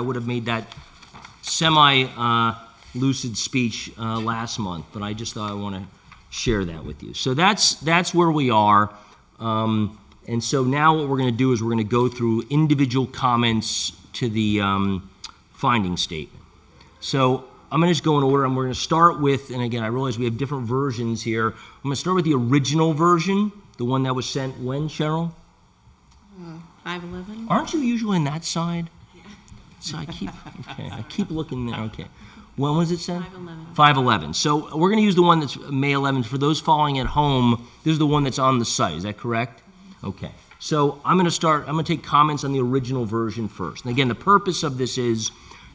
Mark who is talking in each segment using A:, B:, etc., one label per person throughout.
A: I would have made that semi-lucid speech uh, last month, but I just thought I want to share that with you. So that's, that's where we are. Um, And so now what we're going to do is we're going to go through individual comments to the um, finding statement. So I'm going to just go in order, and we're going to start with, and again, I realize we have different versions here. I'm going to start with the original version, the one that was sent when, Cheryl?
B: Five eleven?
A: Aren't you usually in that side? So I keep, okay, I keep looking there, okay. When was it sent?
B: 5/11.
A: 5/11. So we're gonna use the one that's May 11th. For those following at home, this is the one that's on the site, is that correct? Okay. So I'm gonna start, I'm gonna take comments on the original version first. And again, the purpose of this is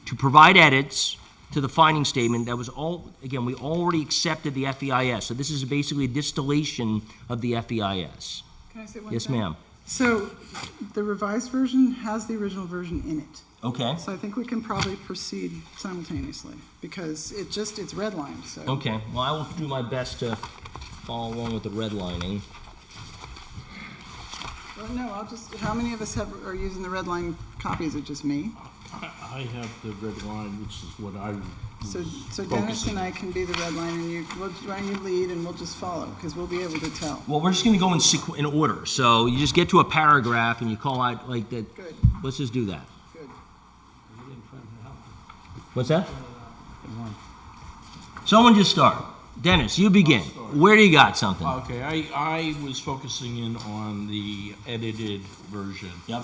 A: to provide edits to the finding statement that was all, again, we already accepted the FEIS. So this is basically a distillation of the FEIS.
C: Can I say one
A: Yes,
C: thing?
A: ma'am?
C: So the revised version has the original version in it.
A: Okay.
C: So I think we can probably proceed simultaneously because it just, it's redlined, so.
A: Okay, well, I will do my best to follow along with the redlining.
C: Well, no, I'll just, how many of us have, are using the redline copy? Is it just me?
D: I I have the red line, which is what I
C: So,
D: was
C: so Dennis and
D: focusing.
C: I can be the redline and you, we'll, why don't you lead and we'll just follow because we'll be able to tell.
A: Well, we're just gonna go in sequ- in order, so you just get to a paragraph and you call out like that.
C: Good.
A: Let's just do that.
C: Good.
A: What's that? Someone just start. Dennis, you begin. Where do you got something?
D: Okay, I, I was focusing in on the edited version.
A: Yep.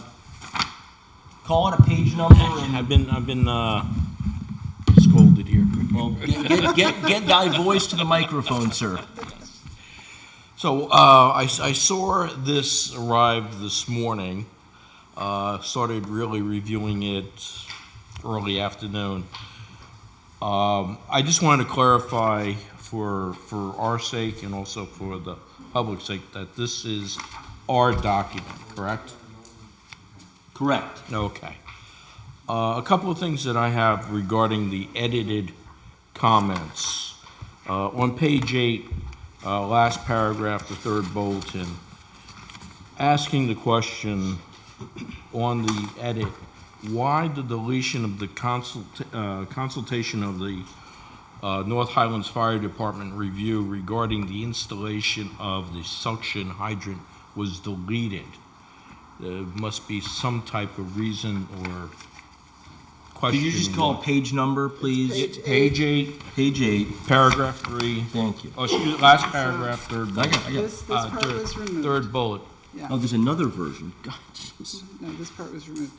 A: Call it a page number and,
D: I've been, I've been, uh, scolded here.
A: well, get, get, get, get thy voice to the microphone, sir.
D: So, uh, I, s- I saw this arrive this morning, uh, started really reviewing it early afternoon. Um, I just wanted to clarify for, for our sake and also for the public's sake that this is our document, correct?
A: Correct.
D: Okay. Uh, A couple of things that I have regarding the edited comments. Uh, On page eight, uh, last paragraph, the third bulletin, asking the question on the edit, why the deletion of the consult uh, consultation of the uh, North Highlands Fire Department review regarding the installation of the suction hydrant was deleted? There must be some type of reason or
A: Could
D: question.
A: you just call a page number, please?
D: Page eight,
A: Page eight.
D: paragraph three,
A: Thank you.
D: oh, excuse, last paragrapaph, third bullet.
A: got- I got-
C: This, this
D: Uh,
C: part
D: third-
C: was removed.
D: Third bullet.
C: Yeah.
A: Oh, there's another version. God, jeez.
C: No, this part was removed.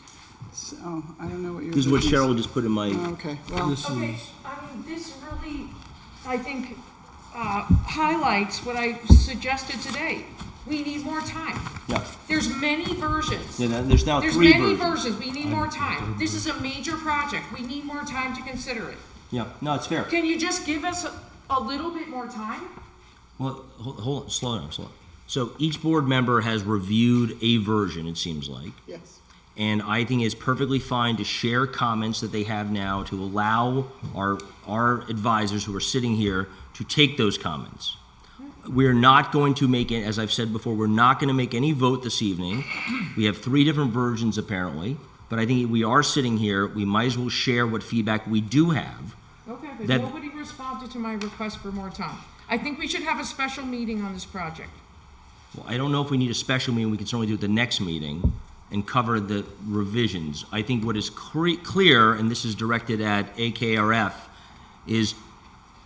C: So, oh, I don't know what you're.
A: This is what Cheryl just put in my.
C: Oh, Okay, well,
D: This
E: Okay,
D: is-
E: I mean, this really, I think, uh, highlights what I suggested today. We need more time.
A: Yeah.
E: There's many versions.
A: Yeah, there- there's now
E: There's
A: three
E: many
A: versions.
E: versions, we need more time. This is a major project, we need more time to consider it.
A: Yeah, no, it's fair.
E: Can you just give us a- a little bit more time?
A: Well, hold, hold on, slow down, slow down. So each board member has reviewed a version, it seems like,
C: yes.
A: and I think it's perfectly fine to share comments that they have now to allow our, our advisors who are sitting here to take those comments. We're not going to make it, as I've said before, we're not going to make any vote this evening. We have three different versions apparently, but I think we are sitting here, we might as well share what feedback we do have.
E: Okay, but
A: That-
E: nobody responded to my request for more time. I think we should have a special meeting on this project.
A: Well, I don't know if we need a special meeting, we can certainly do it the next meeting and cover the revisions. I think what is cre- clear, and this is directed at AKRF, is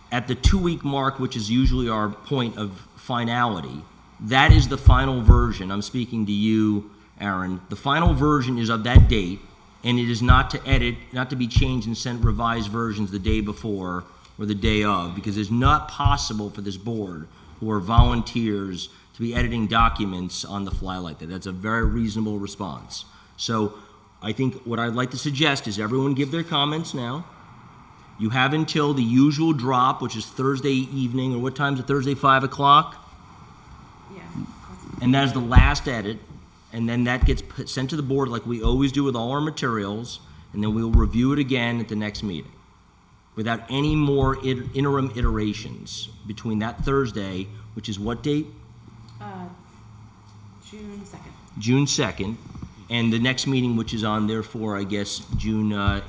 A: at the two-week mark, which is usually our point of finality, that is the final version, I'm speaking to you, Aaron, the final version is of that date, and it is not to edit, not to be changed and sent revised versions the day before or the day of, because it's not possible for this board, who are volunteers, to be editing documents on the fly like that. That's a very reasonable response. So I think what I'd like to suggest is everyone give their comments now. You have until the usual drop, which is Thursday evening, or what time's it, Thursday, five o'clock?
E: Yeah.
A: And that is the last edit, and then that gets put, sent to the board like we always do with all our materials, and then we'll review it again at the next meeting. Without any more it- interim iterations between that Thursday, which is what date?
B: June second.
A: June second, And the next meeting, which is on therefore, I guess, June uh,